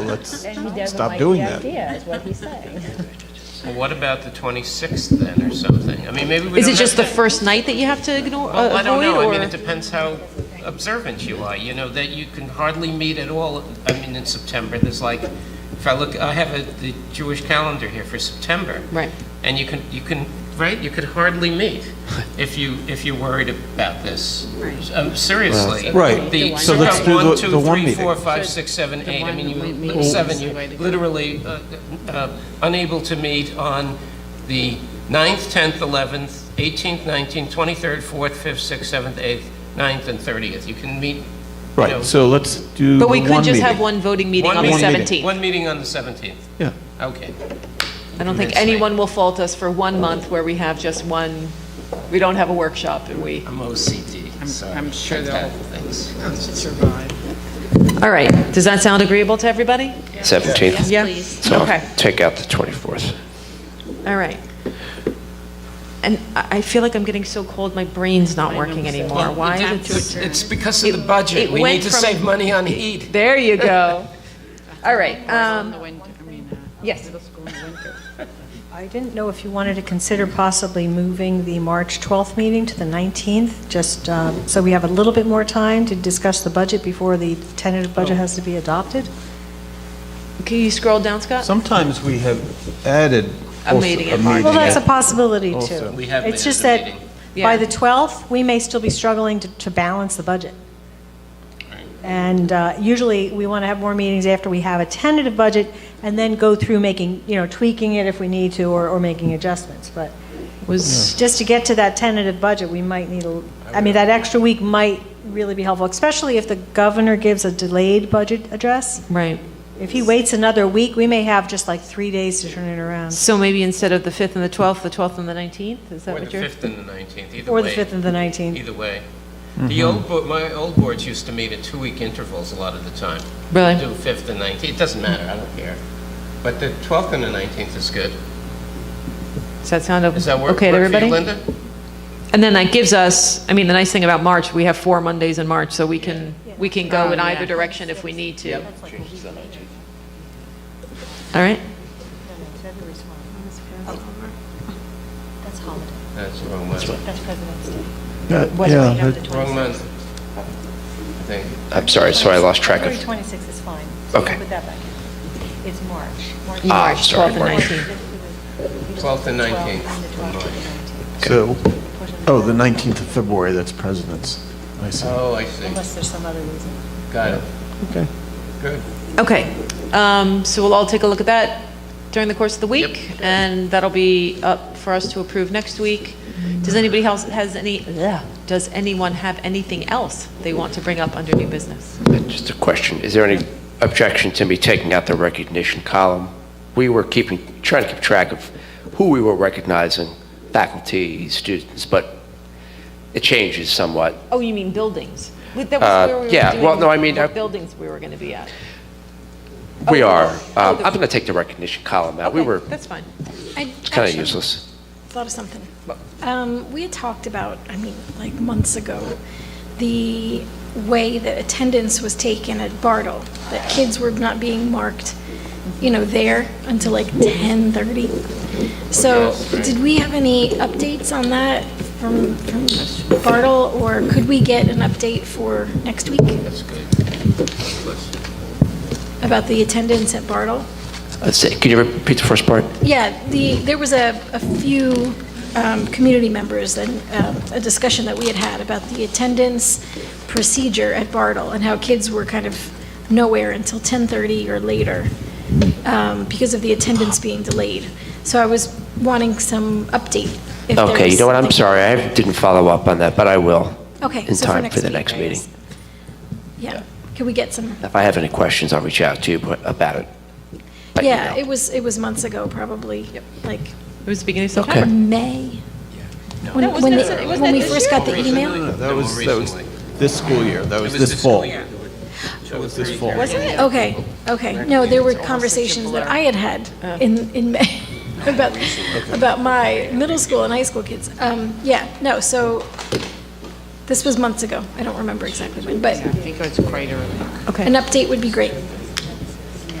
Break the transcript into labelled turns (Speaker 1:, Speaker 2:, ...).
Speaker 1: let's
Speaker 2: And he doesn't
Speaker 1: stop
Speaker 2: like
Speaker 1: doing
Speaker 2: the
Speaker 1: that.
Speaker 2: idea, is what he's saying.
Speaker 3: Well, what about the 26th then, or something? I mean, maybe we
Speaker 4: Is
Speaker 3: don't
Speaker 4: it just the
Speaker 3: have to...
Speaker 4: first night that you have to ignore, uh,
Speaker 3: Well, I don't
Speaker 4: avoid,
Speaker 3: know, I mean,
Speaker 4: or?
Speaker 3: it depends how observant you are, you know, that you can hardly meet at all, I mean, in September, there's like, if I look, I have a- the Jewish calendar here for September.
Speaker 4: Right.
Speaker 3: And you can, you can, right, you could hardly meet if you, if you're worried about this. Um, Seriously.
Speaker 1: Right.
Speaker 3: The-
Speaker 1: So
Speaker 3: you
Speaker 1: let's
Speaker 3: got
Speaker 1: do the-
Speaker 3: one,
Speaker 1: the
Speaker 3: two,
Speaker 1: one
Speaker 3: three,
Speaker 1: meeting.
Speaker 3: four, five, six, seven, eight. I mean, you,
Speaker 4: meeting
Speaker 3: seven,
Speaker 4: is
Speaker 3: you're
Speaker 4: the way to go.
Speaker 3: literally uh, uh, unable to meet on the 9th, 10th, 11th, 18th, 19th, 23rd, 4th, 5th, 6th, 7th, 8th, 9th, and 30th. You can meet, you know,
Speaker 1: Right, so let's do the
Speaker 4: But
Speaker 1: one
Speaker 4: we
Speaker 1: meeting.
Speaker 4: could just have one voting meeting
Speaker 3: one
Speaker 4: on the
Speaker 3: meeting-
Speaker 4: 17th.
Speaker 3: One meeting on the 17th.
Speaker 1: Yeah,
Speaker 3: Okay.
Speaker 4: I don't think
Speaker 3: That's right.
Speaker 4: anyone will fault us for one month where we have just one, we don't have a workshop and we.
Speaker 3: I'm OCD, sorry.
Speaker 5: I'm sure they'll-
Speaker 3: Fantastic things.
Speaker 5: survive.
Speaker 4: All right, does that sound agreeable to everybody?
Speaker 6: 17th.
Speaker 4: Yeah?
Speaker 6: So
Speaker 4: Okay,
Speaker 6: take out the 24th.
Speaker 4: all right. And I I feel like I'm getting so cold, my brain's not working anymore. Why is it?
Speaker 3: It's because of the budget.
Speaker 4: it
Speaker 3: We need
Speaker 4: went
Speaker 3: to
Speaker 4: from-
Speaker 3: save money on heat.
Speaker 4: There you go. All right, um,
Speaker 5: The winter, I mean, uh,
Speaker 4: yes.
Speaker 5: school in the winter.
Speaker 7: I didn't know if you wanted to consider possibly moving the March 12th meeting to the 19th, just um, so we have a little bit more time to discuss the budget before the tentative
Speaker 3: Oh.
Speaker 7: budget has to be adopted.
Speaker 4: Can you scroll down, Scott?
Speaker 1: sometimes we have added
Speaker 4: A
Speaker 1: also
Speaker 4: meeting
Speaker 1: a
Speaker 4: in March.
Speaker 1: meeting.
Speaker 7: Well, that's a possibility, too.
Speaker 3: We have
Speaker 7: It's
Speaker 3: minutes
Speaker 7: just
Speaker 3: of
Speaker 7: that
Speaker 3: meeting.
Speaker 4: Yeah.
Speaker 7: by the 12th, we may still be struggling to- to balance the budget. And uh, usually, we want to have more meetings after we have a tentative budget, and then go through making, you know, tweaking it if we need to, or or making adjustments, but...
Speaker 4: Was
Speaker 7: just to get to that tentative budget, we might need, a. I mean, that extra week might really be helpful, especially if the governor gives a delayed budget address.
Speaker 4: Right.
Speaker 7: If he waits another week, we may have just like three days to turn it around,
Speaker 4: So maybe instead of the 5th and the 12th, the 12th and the 19th? Is that
Speaker 3: Or the
Speaker 4: what you're?
Speaker 3: 5th and the 19th, either way.
Speaker 7: or the 5th and the 19th.
Speaker 3: Either way. The old, bo- my old boards used to meet at two-week intervals a lot of the time.
Speaker 4: Really?
Speaker 3: Do 5th and 19th, it doesn't matter, I don't care. But the 12th and the 19th is good.
Speaker 4: Does that sound o-
Speaker 3: Does that work
Speaker 4: okay to
Speaker 3: work for you,
Speaker 4: everybody?
Speaker 3: Linda?
Speaker 4: And then that gives us, I mean, the nice thing about March, we have four Mondays in March, so we can, we can go in either direction if we need to. All right?
Speaker 3: That's the wrong month.
Speaker 1: Yeah, yeah, that-
Speaker 3: Wrong month. I think.
Speaker 6: I'm sorry, so I lost track of,
Speaker 7: 26th is fine.
Speaker 6: Okay.
Speaker 7: Put that back in. It's March.
Speaker 6: Ah, I'm
Speaker 4: March
Speaker 6: sorry,
Speaker 4: 12th and 19th.
Speaker 3: 12th and 19th.
Speaker 1: so, oh, the 19th of February, that's President's. I see.
Speaker 3: Oh, I see.
Speaker 7: Unless there's some other reason.
Speaker 3: Got it.
Speaker 1: Okay.
Speaker 3: Good.
Speaker 4: Okay, um, so we'll all take a look at that during the course of the week, and that'll be up for us to approve next week. Does anybody else, has any, ugh, does anyone have anything else they want to bring up under new business?
Speaker 6: Uh, just a question. Is there any objection to me taking out the recognition column? We were keeping, trying to keep track of who we were recognizing, faculty, students, but it changes somewhat.
Speaker 4: Oh, you mean buildings? Wait, That
Speaker 6: Uh,
Speaker 4: was where we were
Speaker 6: yeah, well,
Speaker 4: doing
Speaker 6: no, I mean,
Speaker 4: what
Speaker 6: I-
Speaker 4: buildings we were going to be at.
Speaker 6: We
Speaker 4: Oh,
Speaker 6: are.
Speaker 4: oh,
Speaker 6: Um,
Speaker 4: the-
Speaker 6: I'm going to take the recognition column out. We
Speaker 4: Okay,
Speaker 6: were
Speaker 4: That's fine.
Speaker 8: I
Speaker 6: kind of
Speaker 8: actually
Speaker 6: useless.
Speaker 8: Thought of something. Um, we had talked about, I mean, like months ago, the way that attendance was taken at Bartle, that kids were not being marked, you know, there until like ten thirty. So, did we have any updates on that from, from Bartle, or could we get an update for next week? That's good. About the attendance at Bartle?
Speaker 6: Let's see, Can you repeat the first part?
Speaker 8: Yeah, the, there was a, a few um, community members and um, a discussion that we had had about the attendance procedure at Bartle and how kids were kind of nowhere until 10:30 or later um, because of the attendance being delayed. So I was wanting some update. if there
Speaker 6: Okay, you
Speaker 8: was
Speaker 6: know what, I'm
Speaker 8: something.
Speaker 6: sorry, I didn't follow up on that, but I will.
Speaker 4: Oh.
Speaker 8: Okay.
Speaker 6: In
Speaker 8: so
Speaker 6: time for the
Speaker 8: week,
Speaker 6: next
Speaker 8: I
Speaker 6: meeting.
Speaker 8: guess. Yeah, can we get some?
Speaker 6: If I have any questions, I'll reach out to you but- about it. by
Speaker 8: Yeah,
Speaker 6: email.
Speaker 8: it was, it was months ago, probably, like
Speaker 4: It was the beginning of
Speaker 6: Okay.
Speaker 4: September.
Speaker 8: May. When
Speaker 4: No,
Speaker 8: when
Speaker 4: wasn't
Speaker 8: they-
Speaker 4: it- wasn't
Speaker 8: when
Speaker 4: it
Speaker 8: we
Speaker 4: this
Speaker 8: first got the
Speaker 3: Recently?
Speaker 8: email?
Speaker 1: That was,
Speaker 3: more
Speaker 1: that was
Speaker 3: recently.
Speaker 1: this school year, that was
Speaker 3: was
Speaker 1: this
Speaker 3: this
Speaker 1: fall.
Speaker 3: school year.
Speaker 1: That was this fall.
Speaker 8: Okay, okay. No, there were conversations that I had had in, in May about, about my middle school and high school kids. Um, yeah, no, so this was months ago. I don't remember exactly when, but
Speaker 5: I think it's quite early.
Speaker 8: an update would be great.